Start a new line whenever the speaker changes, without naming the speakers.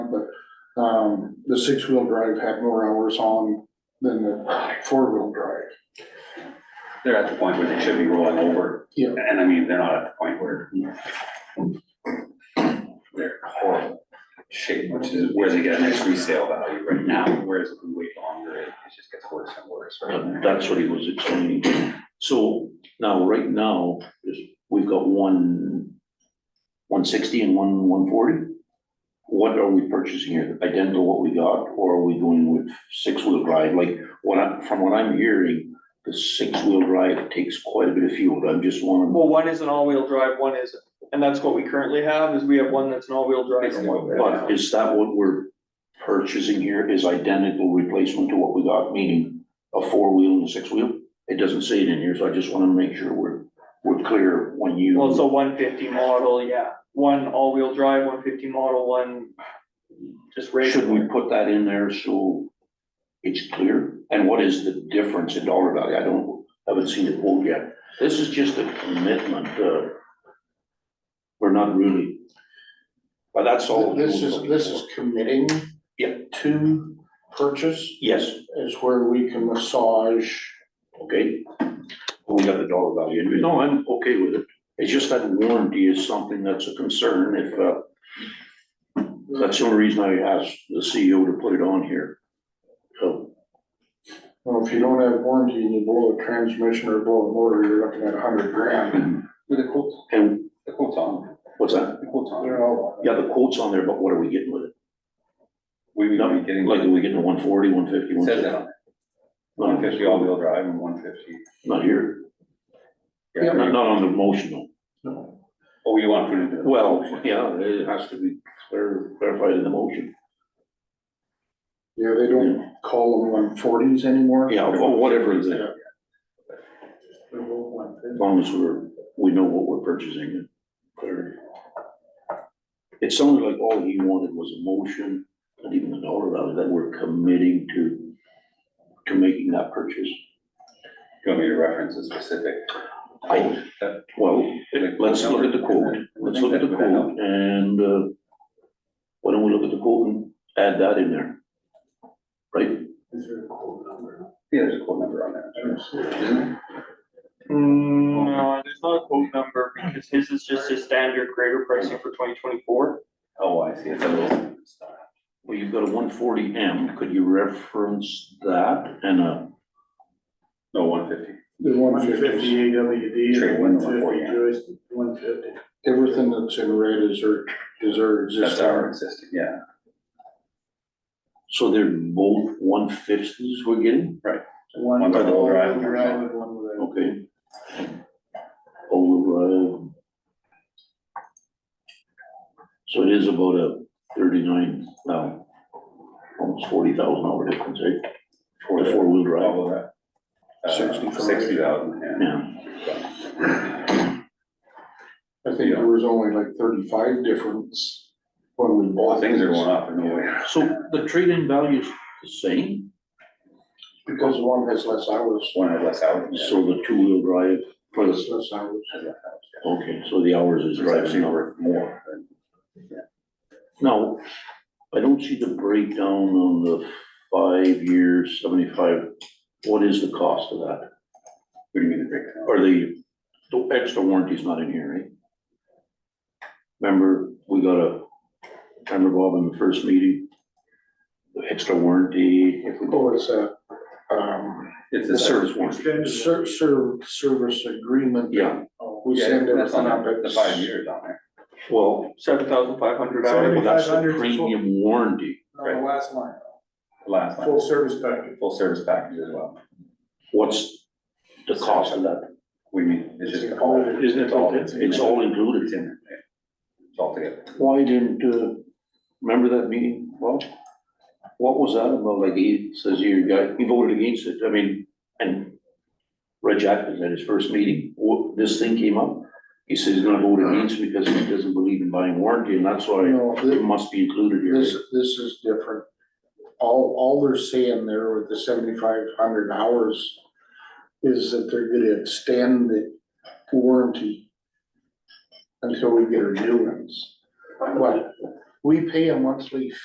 on, but, um, the six-wheel drive had more hours on than the four-wheel drive.
They're at the point where they should be rolling over.
Yeah.
And I mean, they're not at the point where they're horrible shape, which is where they get a nice resale value right now, whereas if we wait longer, it it just gets worse and worse.
And That's what he was explaining. So now, right now, is we've got one one sixty and one one forty? What are we purchasing here? Identical to what we got, or are we going with six-wheel drive? Like, what I, from what I'm hearing, the six-wheel drive takes quite a bit of fuel. I'm just wondering.
Well, one is an all-wheel drive, one isn't, and that's what we currently have, is we have one that's an all-wheel drive and one.
But is that what we're purchasing here is identical replacement to what we got, meaning a four-wheel and a six-wheel? It doesn't say it in here, so I just wanna make sure we're, we're clear when you.
Well, it's a one fifty model, yeah, one all-wheel drive, one fifty model, one just
Should
regular.
we put that in there so it's clear? And what is the difference in dollar value? I don't, haven't seen it quoted yet. This is just a commitment, uh, we're not really. But that's all.
This is, this is committing
Yeah.
to purchase
Yes,
is where we can massage.
okay. We got the dollar value. No, I'm okay with it. It's just that warranty is something that's a concern if, uh, that's the only reason I asked the CEO to put it on here. So.
Well, if you don't have warranty and you blow a transmission or blow a motor, you're looking at a hundred grand.
With the quotes,
And
the quotes on,
what's that?
the quotes on.
They're all.
Yeah, the quote's on there, but what are we getting with it?
We would be getting,
Like, are
it
we getting a one forty, one fifty, one
says
sixty?
that, one fifty all-wheel drive and one fifty.
Not here,
Yeah.
not, not on the motional.
No.
Oh, you want to put it in?
Well, yeah, it has to be clar- clarified in the motion.
Yeah, they don't call them one forties anymore.
Yeah, or whatever it is, as
They're both one fifty.
long as we're, we know what we're purchasing and clear. It sounded like all he wanted was a motion, not even a dollar value, that we're committing to, to making that purchase.
You want me to reference a specific?
I, well, Let's look at the quote, let's look at the quote, and, uh, why don't we look at the quote and add that in there? Right?
Is there a quote number?
Yeah, there's a quote number on there. Isn't there?
Mm, no, there's not a quote number, because his is just his standard grader pricing for twenty twenty-four.
Oh, I see, it's a little.
Well, you've got a one forty M, could you reference that and uh, a,
No, one fifty.
The one fifty.
AWD
Trade one one forty.
Joyce, one fifty.
Everything that's in red is our, is our
That's
existing.
our existing, yeah.
so they're both one fifties we're getting?
One
One
all-wheel
drive.
drive and one without.
Okay. Over, uh. So it is about a thirty-nine, now, almost forty thousand dollar difference, eh? For the four-wheel drive,
All of that.
Sixty
Sixty,
five.
sixty thousand, yeah.
yeah.
I think there was only like thirty-five difference when we
All
bought.
things are
these.
going up in a way.
So the trade-in value's the same,
Because one has less hours.
One had less hours. yeah.
so the two-wheel drive, for
Has
the,
less hours.
Had less hours, yeah.
okay, so the hours is
It's actually
driving over.
worth more than.
Now, I don't see the breakdown on the five-year, seventy-five, what is the cost of that?
What do you mean the breakdown?
Or the, the extra warranty's not in here, right? Remember, we got a, remember Bob in the first meeting? The extra warranty, if we go,
Oh, it's a, um,
It's
the
a service.
service warranty,
ser- ser- service agreement. Uh,
yeah,
We
Yeah,
send
that's
everything
on
up
there,
at.
The five years on there.
well,
Seven thousand five hundred
Sorry.
hours.
well, that's the
7,500 is full-
premium warranty.
On the last line,
The Last one,
full service package.
full service package as well.
What's the cost of that?
What do you mean? It's just.
all- isn't it
It's all-
all-
It's all
It's
included.
in there, yeah. It's all together.
Why didn't, uh, remember that meeting? Well, what was that about? Like he says, you guy, he voted against it. I mean, and Red Jack was at his first meeting. Wha- This thing came up. He says he's gonna vote against it because he doesn't believe in buying warranty and that's why
No, thi-
it must be included
this,
here.
this is different. All, all they're saying there with the seventy-five hundred hours is that they're gonna extend the warranty until we get our new ones. But we pay a monthly